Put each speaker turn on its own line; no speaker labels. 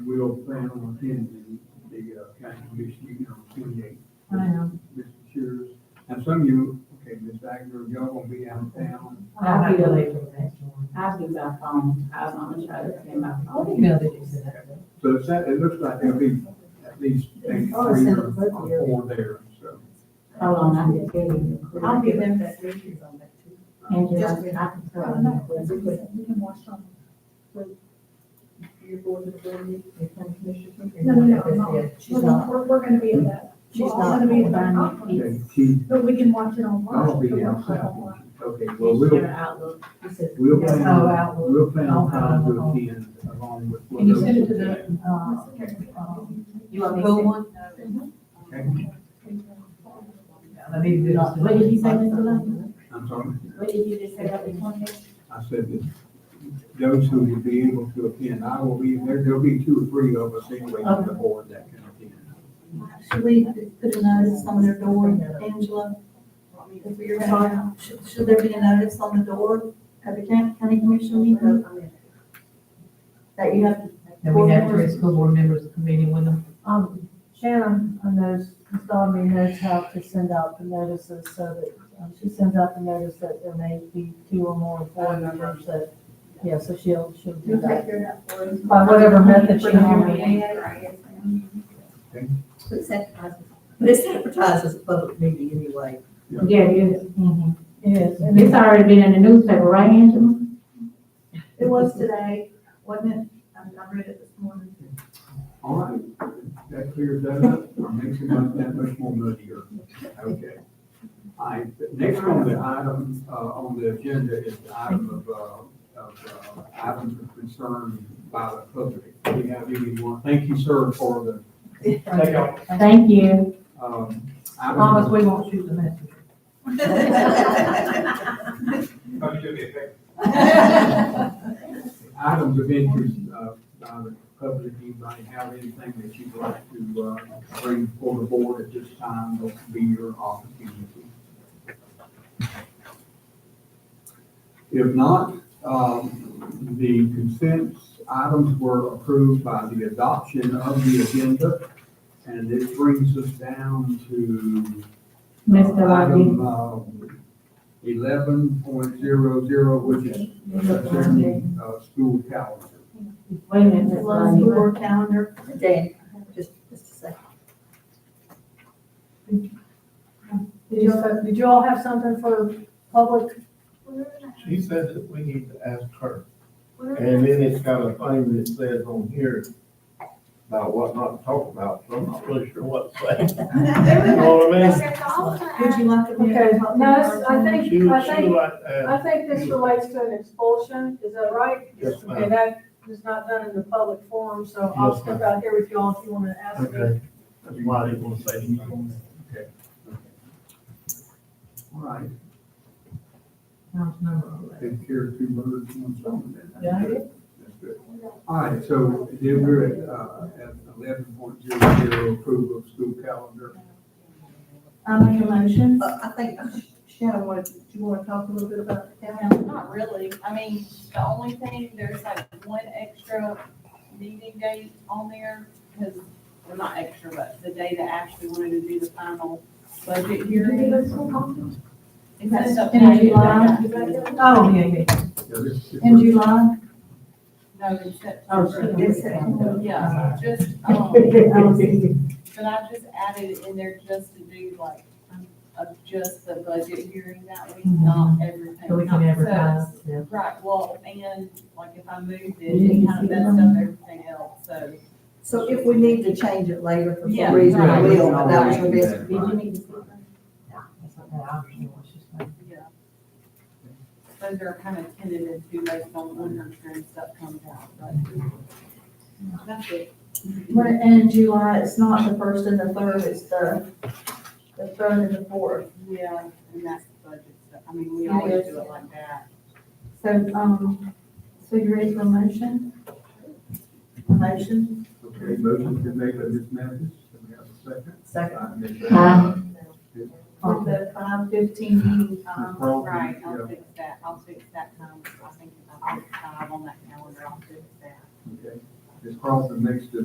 will plan on attending the, uh, county commission meeting on twenty-eighth.
I am.
Mr. Shears, and some of you, okay, Ms. Wagner, y'all gonna be out of town.
I'll
I'll
be
be
away
late for the next one.
I'll do by phone, I was gonna try to send my
I'll
phone.
email that you said that.
So it's, that- it looks like there'll be at least maybe
Oh, it's in
three
the
or
book here.
or four there, so.
Hold on, I can tell you.
I'll give them that pictures on that too.
Angela, I can tell
Oh,
them
no,
that
that's
was
okay. You can watch on. the- Your board is going to
No, no, no, no.
She's
We're,
not,
we're- we're gonna be at that.
she's
We're all
not.
gonna be at that
confirming.
conference,
Okay, Keith,
but we can watch it online.
I'll
We'll
be
watch it
outside.
online.
Okay, well,
your
we'll,
outlook. He said,
we'll
Yes,
plan,
I'll
on-
out-
we'll plan on how to
I'll-
attend along with.
Can you send it to
whatever-
the, uh, um,
Okay.
You want me to?
Go
send-
one?
Okay,
Let me do this.
What did you say, Mr. London?
I'm sorry,
What did you just say about the twenty?
I said that those who will be able to attend, I will be, there, there'll be two or three of us anyway on the board that can attend.
Should we put a notice on their door, Angela? If we're gonna, should, should there be a notice on the door at the county, county commission meeting? That you have.
Then we have three school board members meeting with them.
Um, Sharon knows, Ms. Donovan knows how to send out the notices so that, um, she sends out the notice that there may be two or more board members that, yeah, so she'll, she'll do that. By whatever method she normally.
But it's advertised.
But it's advertised as a public meeting anyway.
Yeah, it is.
Mhm.
Yes, and
It's
it's,
already been in the newspaper, right, Angela?
It was today, wasn't it? I I read it this morning.
All right, that clears that up, or makes it not that much more muddier. Okay. All right, the next on the item, uh, on the agenda is the item of, uh, of, uh, items of concern by the public. Do we have anyone? Thank you, sir, for the takeout.
Thank you.
Um,
As long as
item-
we won't shoot the messenger.
Oh, Items of interest, uh, by the public, anybody have anything that you'd like to, uh, bring before the board at this time? This will be your opportunity. If not, um, the consent items were approved by the adoption of the agenda. And this brings us down to.
Mr. Watley.
Item uh, eleven point zero zero, which is concerning, uh, school calendar.
Wait a minute, Ms.
Slow
Lonnie.
school calendar. Dan, just, just a
did
second.
you, all- did you all have something for public?
She said that we need to ask her. And then it's got a thing that says on here about what not to talk about, so I'm not really sure what to say. You know what I mean?
Would you like to? be-
Okay, no, it's- I think,
She, she
I think,
like, uh, to
I think this relates to an expulsion, is that right?
ask. yes,
Okay,
ma'am.
that is not done in the public forum, so I'll
Yes,
step out here with y'all if you want to ask me.
Okay. That's why I didn't want to say anything.
All right,
Sounds number eleven.
take care of two birds, one stone then. That's
Yeah.
good. That's good. All right, so then we're at, uh, at eleven point zero zero approval of school calendar.
I make a motion.
Uh, I think uh, Shannon wanted, do you want to talk a little bit about the town?
Not really, I mean, the only thing, there's like one extra meeting date on there, because, well, not extra, but the day that Ashley wanted to do the final budget hearing. Is that stuff?
In July?
Oh, yeah, yeah.
Yeah, this-
In July?
No, in September.
Oh,
Yes.
Yeah, just, um, but I just added it in there just to do like, um, of just the budget hearing that week, not everything.
Mhm. So we can
So-
advertise, yeah.
Right, well, and like if I moved it, it kind of messed up everything else, so.
So if we need to change it later for
Yeah,
some reason,
right.
we will, but that was the best.
Right.
Did you need to see her?
That's not that option, what she's saying.
Yeah. Those are kind of tentative to based on when her trend stuff comes out, but that's it.
But in July, it's not the first and the third, it's the, the third and the fourth.
Yeah, and that's the budget stuff. I mean, we always do it like that.
So, um, so you ready for a motion? A motion?
Okay, motion to make by Ms. Mathis, do we have a second?
Second.
By Ms.
Aye.
Ms.
For the five fifteen meeting time.
Crosby,
Um, Right,
yeah.
I'll fix that. I'll fix that time. I think if I put five on that calendar, I'll fix that.
Okay. Ms. Crosby makes the